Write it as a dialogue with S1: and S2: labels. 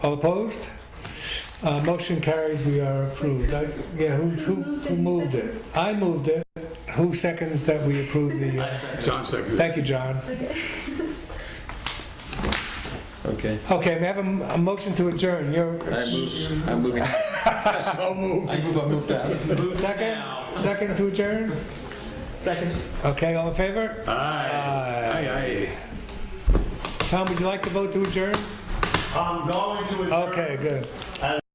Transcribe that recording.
S1: All opposed? Uh, Motion carries, we are approved. I- Yeah, who, who who moved it? I moved it. Who seconds that we approve the, uh,
S2: I second.
S3: John seconded.
S1: thank you, John.
S4: Okay.
S1: Okay, we have a, m- a motion to adjourn. You're,
S4: I move, I'm moving.
S3: So moved.
S4: I move, I move that.
S2: Move
S1: Second?
S2: now.
S1: second to adjourn?
S2: Second.
S1: Okay, all in favor?
S3: Aye. Aye, aye.
S1: Tom, would you like to vote to adjourn?
S5: I'm going to adjourn.
S1: Okay, good.